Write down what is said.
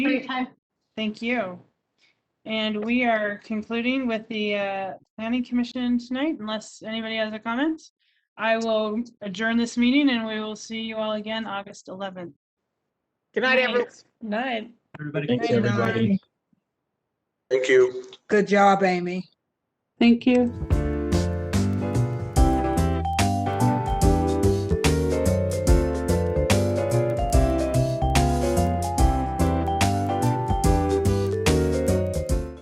for your time. Thank you. And we are concluding with the uh, planning commission tonight, unless anybody has a comment. I will adjourn this meeting and we will see you all again August 11th. Good night, Night. everyone. Night. Everybody. Thanks, Thank you. everybody. Thank you. Good job, Amy. Thank you.